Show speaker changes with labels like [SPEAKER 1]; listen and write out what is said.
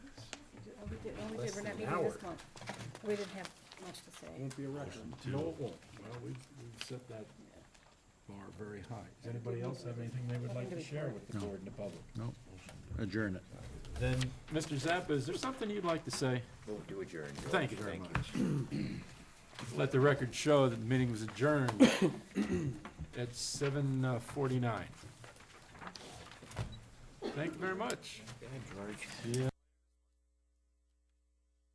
[SPEAKER 1] we were not meeting this month. We didn't have much to say.
[SPEAKER 2] Won't be a record. No, it won't. Well, we, we set that bar very high. Does anybody else have anything they would like to share with the board and the public?
[SPEAKER 3] No, adjourn it.
[SPEAKER 2] Then, Mr. Zappa, is there something you'd like to say?
[SPEAKER 4] Move to adjourn. George.
[SPEAKER 2] Thank you very
[SPEAKER 4] Thank you.
[SPEAKER 2] Let the record show that the meeting was adjourned at seven uh, forty-nine. Thank you very much.
[SPEAKER 4] Yeah, George.
[SPEAKER 2] Yeah.